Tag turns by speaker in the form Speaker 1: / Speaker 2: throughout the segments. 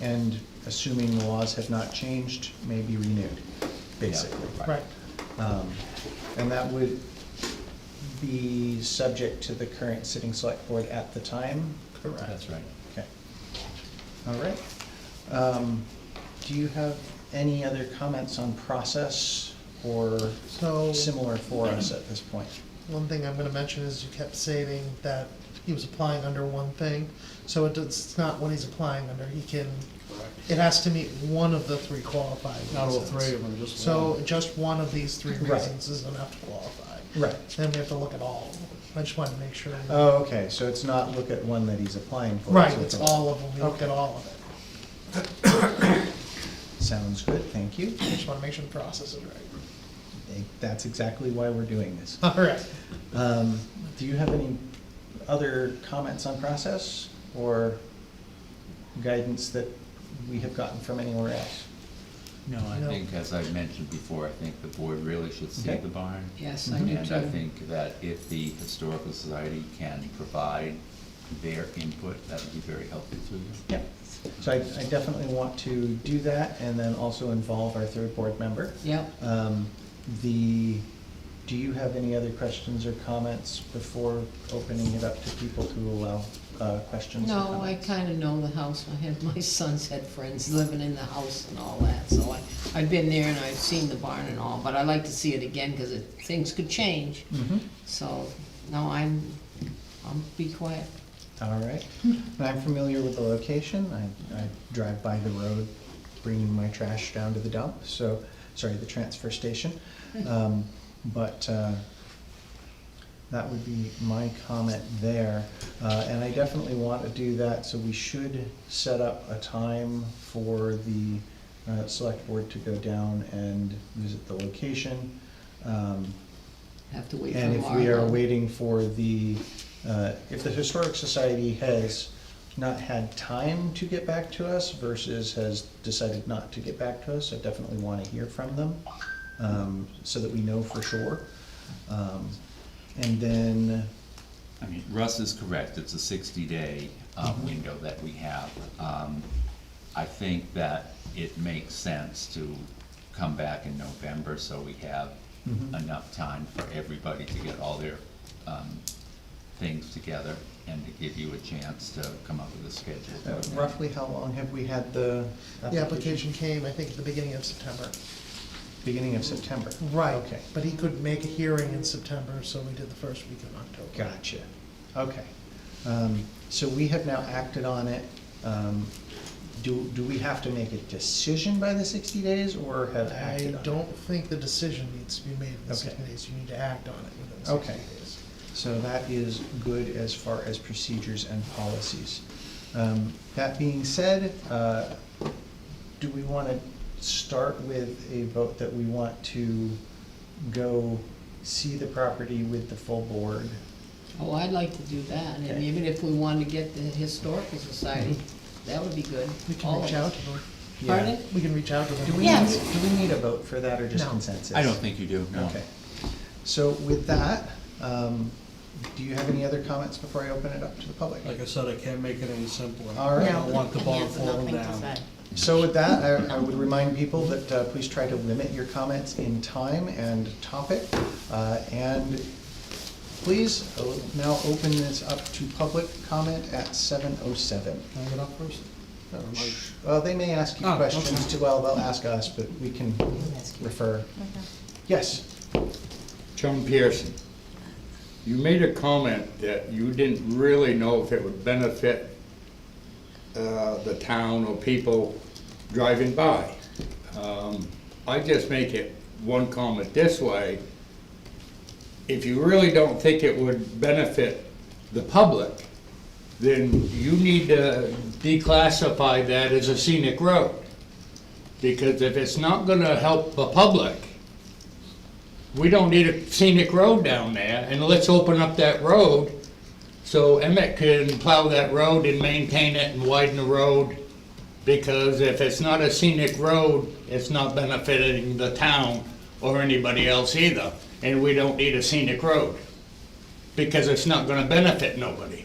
Speaker 1: and assuming the laws have not changed, may be renewed, basically.
Speaker 2: Right,
Speaker 1: Um, And that would be subject to the current sitting select board at the time?
Speaker 2: correct.
Speaker 3: That's right.
Speaker 1: Okay. All right. Um, Do you have any other comments on process or
Speaker 2: So,
Speaker 1: similar for us at this point?
Speaker 2: one thing I'm gonna mention is you kept stating that he was applying under one thing, so it does- it's not what he's applying under, he can, it has to meet one of the three qualifying reasons.
Speaker 4: Not all three of them, just one.
Speaker 2: So just one of these three
Speaker 1: Right.
Speaker 2: reasons is enough to qualify.
Speaker 1: Right.
Speaker 2: Then we have to look at all of them, I just wanted to make sure.
Speaker 1: Oh, okay, so it's not look at one that he's applying for.
Speaker 2: Right,
Speaker 1: so
Speaker 2: it's all of them, we look at
Speaker 1: Okay.
Speaker 2: all of it,
Speaker 1: Sounds good, thank you.
Speaker 2: I just wanna make sure the process is right.
Speaker 1: That's exactly why we're doing this.
Speaker 2: All right,
Speaker 1: Um, Do you have any other comments on process or guidance that we have gotten from anywhere else?
Speaker 3: No, I
Speaker 2: No.
Speaker 3: think, as I mentioned before, I think the board really should see
Speaker 1: Okay.
Speaker 3: the barn.
Speaker 5: Yes, I do
Speaker 3: Mhm. And I
Speaker 5: too.
Speaker 3: think that if the Historical Society can provide their input, that would be very helpful to them.
Speaker 1: Yep. So I I definitely want to do that and then also involve our third board member.
Speaker 5: Yep,
Speaker 1: Um, The, do you have any other questions or comments before opening it up to people to allow uh, questions or
Speaker 5: no, I
Speaker 1: comments?
Speaker 5: kinda know the house, I have, my sons had friends living in the house and all that, so I, I've been there and I've seen the barn and all, but I like to see it again, cause it, things could change,
Speaker 1: Mhm.
Speaker 5: so, no, I'm, I'll be quiet.
Speaker 1: All right. And I'm familiar with the location. I, I drive by the road bringing my trash down to the dump, so, sorry, the transfer station. Um, But uh, that would be my comment there. Uh, And I definitely want to do that, so we should set up a time for the uh, select board to go down and visit the location. Um,
Speaker 5: Have to wait for
Speaker 1: and
Speaker 5: Laura.
Speaker 1: if we are waiting for the, uh, if the Historic Society has not had time to get back to us versus has decided not to get back to us, I definitely want to hear from them, um, so that we know for sure. Um, And then,
Speaker 3: I mean, Russ is correct, it's a sixty-day,
Speaker 1: Mm-hmm.
Speaker 3: um, window that we have. Um, I think that it makes sense to come back in November, so we have
Speaker 1: Mhm.
Speaker 3: enough time for everybody to get all their, um, things together and to give you a chance to come up with a
Speaker 1: uh,
Speaker 3: schedule.
Speaker 1: roughly how long have we had the?
Speaker 2: the application came, I think, at the beginning of September.
Speaker 1: Beginning of September.
Speaker 2: Right.
Speaker 1: Okay.
Speaker 2: But he could make a hearing in September, so we did the first week of October.
Speaker 1: Gotcha, okay. Um, So we have now acted on it. Um, Do, do we have to make a decision by the sixty days or have acted
Speaker 2: I
Speaker 1: on it?
Speaker 2: don't think the decision needs to be made in sixty
Speaker 1: Okay.
Speaker 2: days, you need to act on it within sixty
Speaker 1: Okay.
Speaker 2: days.
Speaker 1: So that is good as far as procedures and policies. Um, That being said, uh, do we want to start with a vote that we want to go see the property with the full board?
Speaker 5: Oh, I'd like to do that, and
Speaker 1: Okay.
Speaker 5: even if we wanted to get the historical society, that would be good.
Speaker 2: We can
Speaker 5: All
Speaker 2: reach
Speaker 5: of
Speaker 2: out
Speaker 5: us.
Speaker 2: to them,
Speaker 1: Yeah.
Speaker 5: Pardon?
Speaker 2: we can reach out to
Speaker 1: Do
Speaker 2: them.
Speaker 1: we, need-
Speaker 5: Yes.
Speaker 1: do we need a vote for that or just
Speaker 2: No.
Speaker 1: consensus?
Speaker 3: I don't think you do, no.
Speaker 1: Okay. So with that, um, do you have any other comments before I open it up to the public?
Speaker 4: Like I said, I can't make it any simpler.
Speaker 1: All right.
Speaker 4: I don't want the barn falling down.
Speaker 1: So with that, I, I would remind people that, uh, please try to limit your comments in time and topic. Uh, and please uh, now open this up to public comment at seven oh seven.
Speaker 4: Can I get up first?
Speaker 1: Oh,
Speaker 4: Or am I-
Speaker 1: Well, they may ask you
Speaker 4: Oh, okay.
Speaker 1: questions too, well, they'll ask us, but we can refer. Yes,
Speaker 6: Chum Pearson, you made a comment that you didn't really know if it would benefit uh, the town or people driving by. Um, I just make it one comment this way. If you really don't think it would benefit the public, then you need to declassify that as a scenic road. Because if it's not gonna help the public, we don't need a scenic road down there, and let's open up that road so Emmett can plow that road and maintain it and widen the road. Because if it's not a scenic road, it's not benefiting the town or anybody else either. And we don't need a scenic road, because it's not gonna benefit nobody.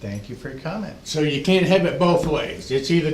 Speaker 1: thank you for your comment.
Speaker 6: So you can't have it both ways. It's either